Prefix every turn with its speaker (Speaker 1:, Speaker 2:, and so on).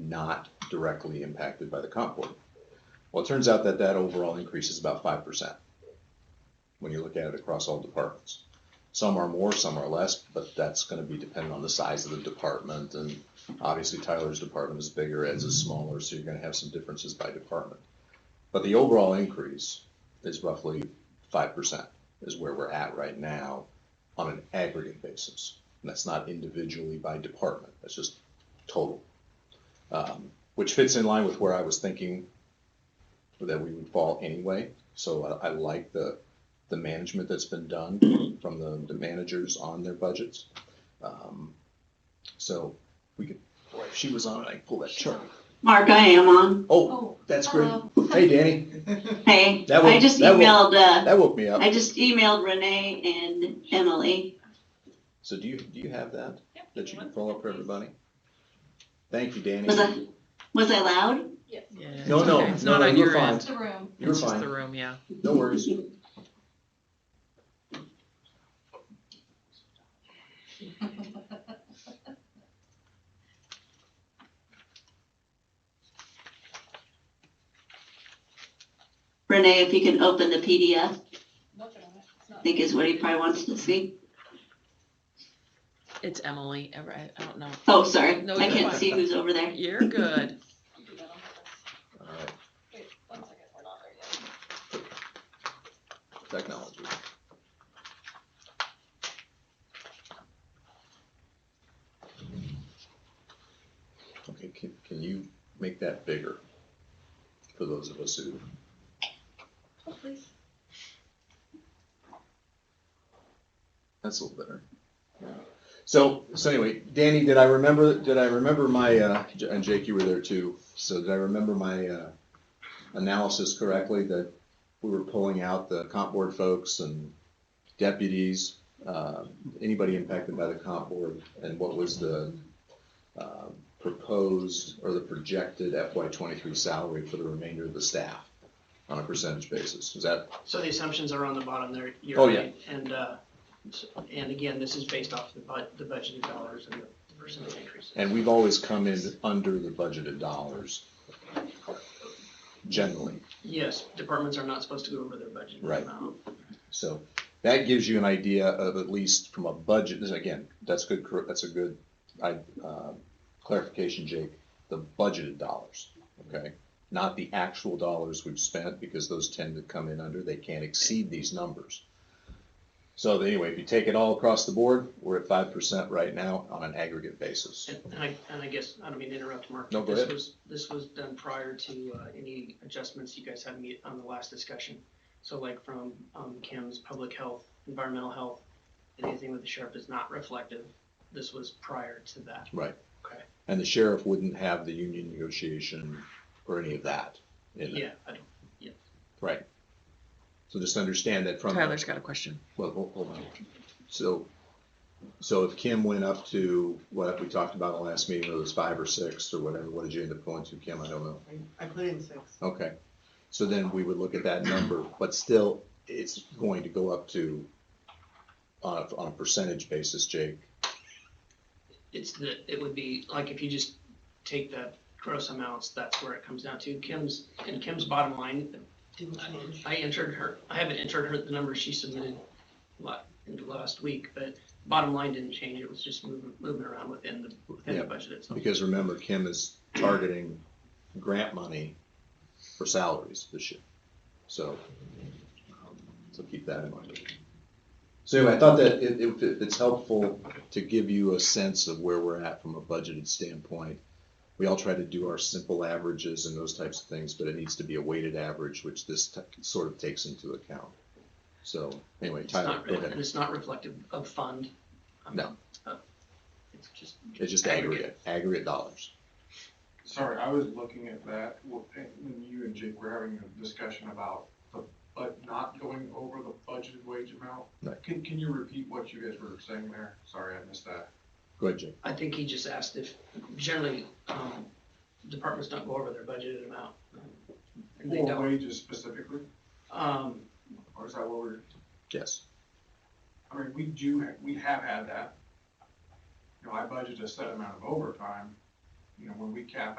Speaker 1: not directly impacted by the comp board. Well, it turns out that that overall increase is about five percent when you look at it across all departments. Some are more, some are less, but that's gonna be dependent on the size of the department, and obviously Tyler's department is bigger, Ed's is smaller, so you're gonna have some differences by department. But the overall increase is roughly five percent, is where we're at right now on an aggregate basis. And that's not individually by department, that's just total. Um, Which fits in line with where I was thinking that we would fall anyway, so I, I like the, the management that's been done from the, the managers on their budgets. Um, So we could, boy, if she was on it, I could pull that chart.
Speaker 2: Mark, I am on.
Speaker 1: Oh,
Speaker 3: Oh,
Speaker 1: that's great.
Speaker 3: hello.
Speaker 1: Hey, Danny,
Speaker 2: Hey,
Speaker 1: That will-
Speaker 2: I just
Speaker 1: that will-
Speaker 2: emailed, uh,
Speaker 1: that woke me up.
Speaker 2: I just emailed Renee and Emily.
Speaker 1: So do you, do you have that,
Speaker 3: Yep,
Speaker 1: that you
Speaker 3: one
Speaker 1: can pull up for
Speaker 3: second,
Speaker 1: everybody? Thank you, Danny.
Speaker 2: Was I, was I loud?
Speaker 3: please. Yes.
Speaker 4: Yeah,
Speaker 1: No,
Speaker 4: it's
Speaker 1: no,
Speaker 4: okay. It's
Speaker 1: no,
Speaker 4: not
Speaker 1: no,
Speaker 4: on
Speaker 1: you're
Speaker 4: your
Speaker 1: fine.
Speaker 4: end.
Speaker 3: It's the room.
Speaker 1: You're
Speaker 4: It's just the
Speaker 1: fine,
Speaker 4: room, yeah.
Speaker 1: no worries.
Speaker 2: Renee, if you can open the PDF,
Speaker 3: Nothing on it. It's
Speaker 2: I
Speaker 3: not-
Speaker 2: think is what he probably wants to see.
Speaker 4: It's Emily. Ever- I I don't know.
Speaker 2: Oh, sorry,
Speaker 4: No,
Speaker 2: I
Speaker 4: you're
Speaker 2: can't
Speaker 4: fine.
Speaker 2: see who's over there.
Speaker 4: You're good.
Speaker 3: you do that on purpose.
Speaker 1: All right,
Speaker 3: Wait, one second, we're not there yet.
Speaker 1: technology. Okay, can, can you make that bigger for those of us who,
Speaker 3: Oh, please.
Speaker 1: that's a little better. So, so anyway, Danny, did I remember, did I remember my, uh, J- and Jake, you were there too, so did I remember my, uh, analysis correctly that we were pulling out the comp board folks and deputies, uh, anybody impacted by the comp board, and what was the, uh, proposed or the projected FY twenty-three salary for the remainder of the staff on a percentage basis? Is that,
Speaker 5: So the assumptions are on the bottom there. you're
Speaker 1: Oh, yeah.
Speaker 5: right. And, uh, s- and again, this is based off the bu- the budgeted dollars and the percentage increases.
Speaker 1: and we've always come in under the budgeted dollars generally.
Speaker 5: Yes, departments are not supposed to go over their budget
Speaker 1: Right.
Speaker 5: amount.
Speaker 1: So that gives you an idea of at least from a budget, this- again, that's good, cor- that's a good, I, uh, clarification, Jake, the budgeted dollars, okay? Not the actual dollars we've spent, because those tend to come in under, they can't exceed these numbers. So anyway, if you take it all across the board, we're at five percent right now on an aggregate basis.
Speaker 5: And and I, and I guess, I don't mean to interrupt, Mark.
Speaker 1: No,
Speaker 5: but
Speaker 1: go
Speaker 5: this
Speaker 1: ahead.
Speaker 5: was- This was done prior to uh, any adjustments you guys had me- on the last discussion. So like from um, Kim's public health, environmental health, and anything with the sheriff is not reflective. This was prior to that.
Speaker 1: And the sheriff wouldn't have the union negotiation or any of that in there,
Speaker 5: Yeah, I don't,
Speaker 1: right? So just understand that from. the-
Speaker 4: Tyler's got a question.
Speaker 1: Well, hold, hold on. So, so if Kim went up to what we talked about in the last meeting, whether it was five or six or whatever, what did you end up going to, Kim? I don't know.
Speaker 6: I put in six.
Speaker 1: Okay. So then we would look at that number, but still, it's going to go up to, on a, on a percentage basis, Jake.
Speaker 5: It's the, it would be, like, if you just take the gross amounts, that's where it comes down to. Kim's, and Kim's bottom line,
Speaker 6: Didn't change.
Speaker 5: I entered her, I haven't entered her, the number she submitted la- last week, but bottom line didn't change, it was just moving, moving around within the, within
Speaker 1: Yeah,
Speaker 5: the budget itself.
Speaker 1: Because remember, Kim is targeting grant money for salaries this year. So, um, so keep that in mind. So anyway, I thought that it, it, it's helpful to give you a sense of where we're at from a budgeted standpoint. We all try to do our simple averages and those types of things, but it needs to be a weighted average, which this t- sort of takes into account. So anyway,
Speaker 5: It's
Speaker 1: Tyler,
Speaker 5: not,
Speaker 1: go
Speaker 5: re-
Speaker 1: ahead.
Speaker 5: and it's not reflective of fund. um,
Speaker 1: No.
Speaker 5: uh, It's just,
Speaker 1: It's just aggregate, aggregate dollars.
Speaker 7: Sorry, I was looking at that, wh- and when you and Jake were having a discussion about the, but not going over the budgeted wage amount.
Speaker 1: Right.
Speaker 7: Can, can you repeat what you guys were saying there? Sorry, I missed that.
Speaker 1: Go ahead, Jake.
Speaker 5: I think he just asked if, generally, um, departments don't go over their budgeted amount. And they
Speaker 7: Or
Speaker 5: don't,
Speaker 7: wages specifically,
Speaker 5: um,
Speaker 7: or is that what we're,
Speaker 1: Yes.
Speaker 7: I mean, we do, ha- we have had that. You know, I budget a set amount of overtime, you know, when we cap